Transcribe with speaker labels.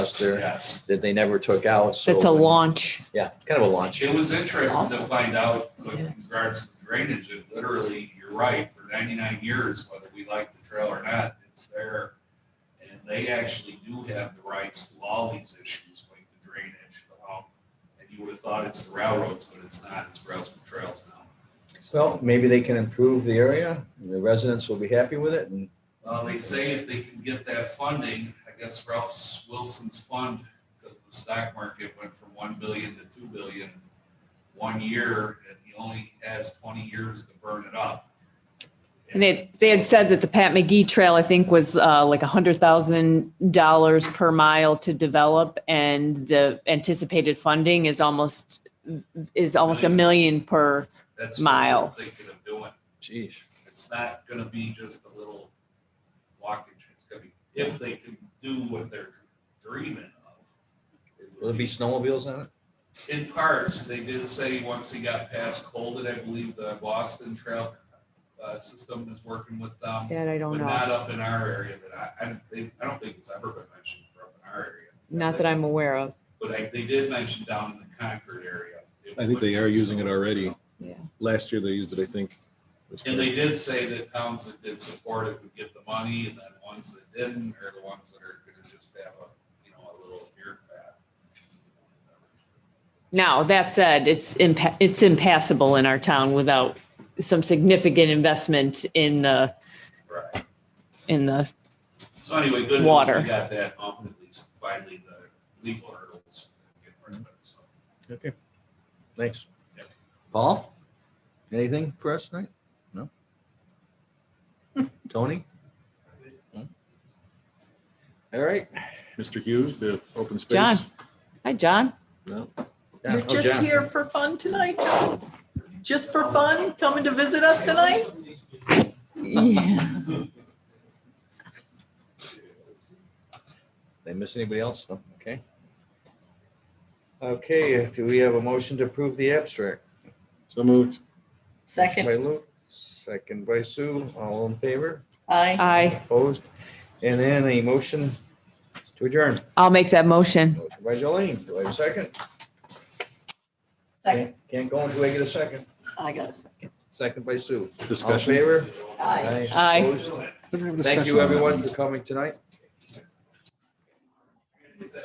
Speaker 1: there
Speaker 2: Yes.
Speaker 1: that they never took out. So
Speaker 3: That's a launch.
Speaker 1: Yeah, kind of a launch.
Speaker 2: It was interesting to find out with
Speaker 3: Yeah.
Speaker 2: regards to drainage, it literally, you're right, for ninety-nine years, whether we like the trail or not, it's there. And they actually do have the rights to all these issues like the drainage. um, And you would have thought it's the railroads, but it's not, it's Rails and Trails now.
Speaker 1: Well,
Speaker 2: So,
Speaker 1: maybe they can improve the area. The residents will be happy with it and
Speaker 2: uh, they say if they can get that funding, I guess Ralph Wilson's fund, because the stock market went from one billion to two billion in one year, and he only has twenty years to burn it up.
Speaker 3: And they, they had said that the Pat McGee Trail, I think, was uh, like $100,000 per mile to develop. And the anticipated funding is almost, is almost a million per.
Speaker 2: That's what we're
Speaker 3: miles.
Speaker 2: Thinking of doing,
Speaker 1: geez,
Speaker 2: it's not gonna be just a little walking, it's gonna be, if they can do what they're dreaming of. it would
Speaker 1: will there be snowmobiles on it?
Speaker 2: In parts, they did say once he got past Colden, I believe the Boston Trail uh, System is working with them.
Speaker 3: That I
Speaker 2: But
Speaker 3: don't know.
Speaker 2: not up in our area, but I, I, they- I don't think it's ever been mentioned for up in our area.
Speaker 3: Not that I'm aware of.
Speaker 2: But I, they did mention down in the Concord area. It
Speaker 4: I think they
Speaker 2: would-
Speaker 4: are using it already.
Speaker 3: Yeah.
Speaker 4: Last year they used it, I think.
Speaker 2: And they did say that towns that did support it would get the money, and then ones that didn't are the ones that are gonna just have a, you know, a little beer path.
Speaker 3: Now, that said, it's impa- it's impassable in our town without some significant investment in the,
Speaker 2: Right.
Speaker 3: in the,
Speaker 2: So anyway, good. news,
Speaker 3: Water.
Speaker 2: We got that, um, at least finally the legal hurdles. get rid of it, so.
Speaker 1: Okay. Thanks.
Speaker 2: Yep.
Speaker 1: Paul, anything for us tonight? No? Tony? No? All right.
Speaker 4: Mr. Hughes, the open space.
Speaker 3: John. hi, John.
Speaker 4: No,
Speaker 1: Yeah,
Speaker 5: You're
Speaker 1: oh,
Speaker 5: just
Speaker 1: John.
Speaker 5: here for fun tonight, John? Just for fun, coming to visit us tonight?
Speaker 3: Yeah.
Speaker 1: Did I miss anybody else? No? Okay. Okay, do we have a motion to approve the abstract?
Speaker 4: So moved.
Speaker 1: Motion
Speaker 5: Second,
Speaker 1: By Luke, second by Sue, all in favor,
Speaker 5: aye.
Speaker 3: Aye,
Speaker 1: opposed, and then a motion to adjourn.
Speaker 3: I'll make that motion.
Speaker 1: Motion by Jolene, do I have a second?
Speaker 5: Second,
Speaker 1: Can't- Can't go until I get a second.
Speaker 5: I got a second.
Speaker 1: Second by Sue. All in
Speaker 4: Discussion.
Speaker 1: favor?
Speaker 5: Aye.
Speaker 3: Aye.
Speaker 1: opposed? Thank you, everyone, for coming tonight.